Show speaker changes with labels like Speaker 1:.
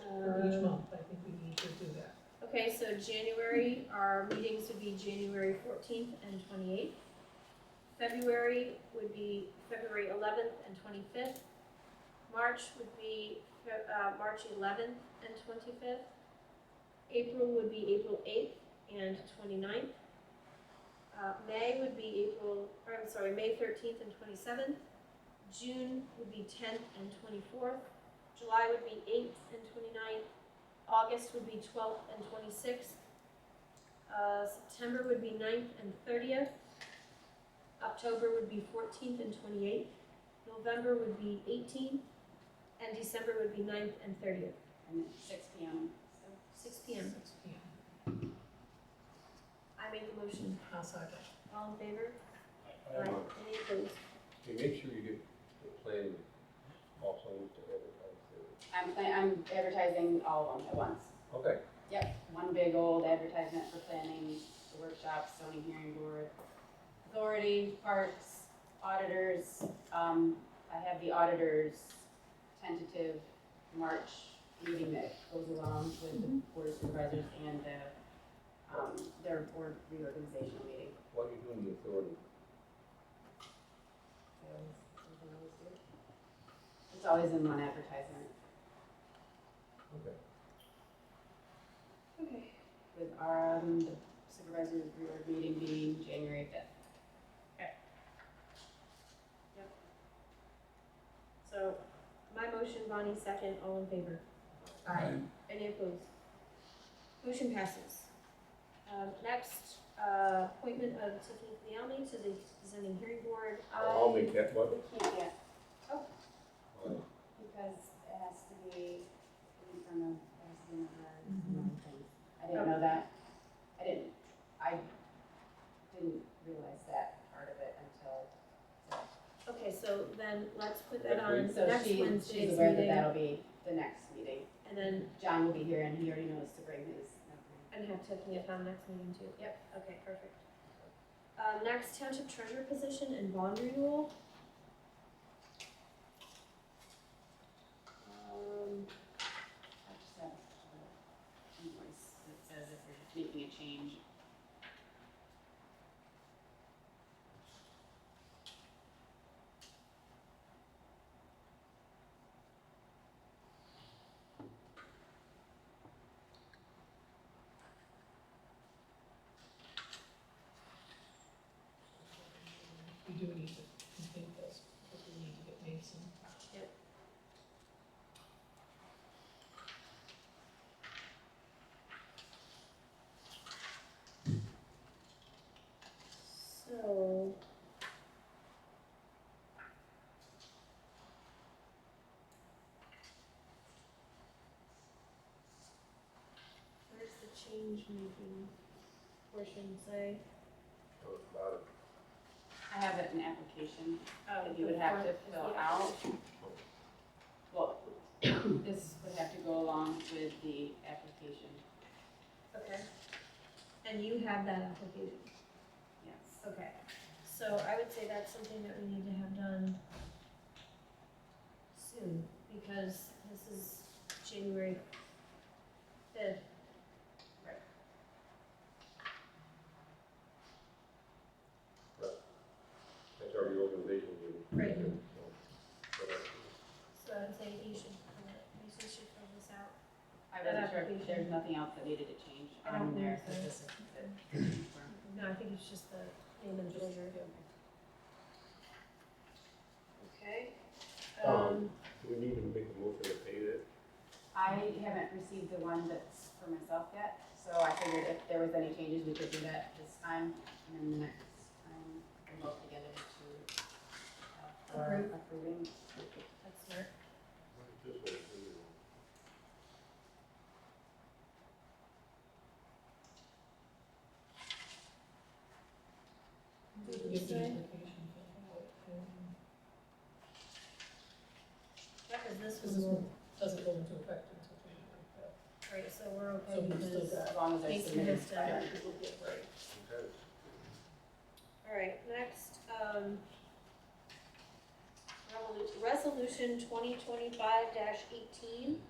Speaker 1: Uh, Okay, so January, our meetings would be January fourteenth and twenty-eighth. February would be February eleventh and twenty-fifth. March would be, Fe- uh, March eleventh and twenty-fifth. April would be April eighth and 29th. Uh, May would be April, or I'm sorry, May thirteenth and twenty-seventh. June would be tenth and twenty-fourth. July would be eighth and 29th. August would be twelfth and twenty-sixth. Uh, September would be 9th and thirtieth. October would be fourteenth and twenty-eighth. November would be eighteenth, and December would be 9th and thirtieth,
Speaker 2: and then six P M.
Speaker 1: six P M. I make the motion.
Speaker 3: I'll second.
Speaker 1: All in favor?
Speaker 4: I have
Speaker 1: Any opposed?
Speaker 4: a- you make sure you get the planning, all plans to advertise
Speaker 2: I'm, pla- I'm advertising all of them at once.
Speaker 4: it. Okay,
Speaker 2: Yep, one big old advertisement for planning, the workshops, zoning hearing board, authority, parks, auditors. Um, I have the auditors tentative March meeting that goes along with the board of supervisors and the, um, their board reorganizational meeting.
Speaker 4: why are you doing the authority?
Speaker 2: It's always in one advertisement
Speaker 4: Okay,
Speaker 1: Okay.
Speaker 2: with our, um, the supervisor's reorg meeting being January fifth.
Speaker 1: So, my motion, Bonnie second, all in favor?
Speaker 3: Aye.
Speaker 1: Any opposed? Motion passes. Um, next, uh, appointment of Tiffany Cleoni to the zoning hearing board.
Speaker 4: I'll
Speaker 1: I-
Speaker 4: make that one.
Speaker 2: We can't get
Speaker 4: Alright.
Speaker 2: Because it has to be in front of, it has to be in the yard, and
Speaker 1: Mm-hmm.
Speaker 2: other things. I didn't know that. I didn't, I didn't realize that part of it until.
Speaker 1: Okay, so then let's put that
Speaker 4: Next
Speaker 1: on
Speaker 4: week?
Speaker 2: So
Speaker 1: next
Speaker 2: she,
Speaker 1: Wednesday's
Speaker 2: she's aware that
Speaker 1: meeting,
Speaker 2: that'll be the next meeting.
Speaker 1: and then,
Speaker 2: John will be here and he already knows to bring his.
Speaker 1: and have Tiffany at the next meeting too.
Speaker 2: Yep.
Speaker 1: Okay, perfect. Um, next, township treasurer position and bond renewal. Um,
Speaker 2: I just have a little invoice that says if we're making a change.
Speaker 3: We do need to complete this, because we need to get Mason.
Speaker 1: Yep. So. Where's the change making portion say?
Speaker 4: So it's about it.
Speaker 2: I have it in application
Speaker 1: Oh,
Speaker 2: that you would have to fill out. Well, this would have to go along with the application,
Speaker 1: Okay. And you have that application?
Speaker 2: yes.
Speaker 1: Okay, so I would say that's something that we need to have done soon, because this is January fifth.
Speaker 2: Right.
Speaker 4: That's our reorganization meeting.
Speaker 1: Right.
Speaker 4: So, but, uh,
Speaker 1: So I would say you should, fill it- you should fill this out.
Speaker 2: I wasn't
Speaker 1: That
Speaker 2: sure if
Speaker 1: application.
Speaker 2: there's nothing else that needed to change
Speaker 1: I don't
Speaker 2: on
Speaker 1: think
Speaker 2: there,
Speaker 1: so.
Speaker 2: because this is the.
Speaker 1: No, I think it's just the name and treasure. Okay. Um,
Speaker 4: Um, Do we need to make a motion to pay that?
Speaker 2: I haven't received the one that's for myself yet, so I figured if there was any changes, we could do that this time, and then the next time, we'll look together to, uh, for
Speaker 1: Approve.
Speaker 2: approving.
Speaker 1: that's smart.
Speaker 4: This way, we will-
Speaker 1: Did
Speaker 3: We
Speaker 1: you
Speaker 3: get the
Speaker 1: say?
Speaker 3: application filled out, and
Speaker 1: Because this
Speaker 3: This is
Speaker 1: was,
Speaker 3: one, doesn't go into effect until January fifth.
Speaker 1: right, Mm-hmm. so we're
Speaker 3: So
Speaker 1: okay
Speaker 3: we
Speaker 1: with
Speaker 3: still
Speaker 1: this.
Speaker 3: got.
Speaker 2: As long as I
Speaker 1: Mason
Speaker 2: submitted.
Speaker 1: has to-
Speaker 2: by-
Speaker 3: Right.
Speaker 4: okay.
Speaker 1: Alright, next, um, revolu- resolution twenty twenty-five eighteen,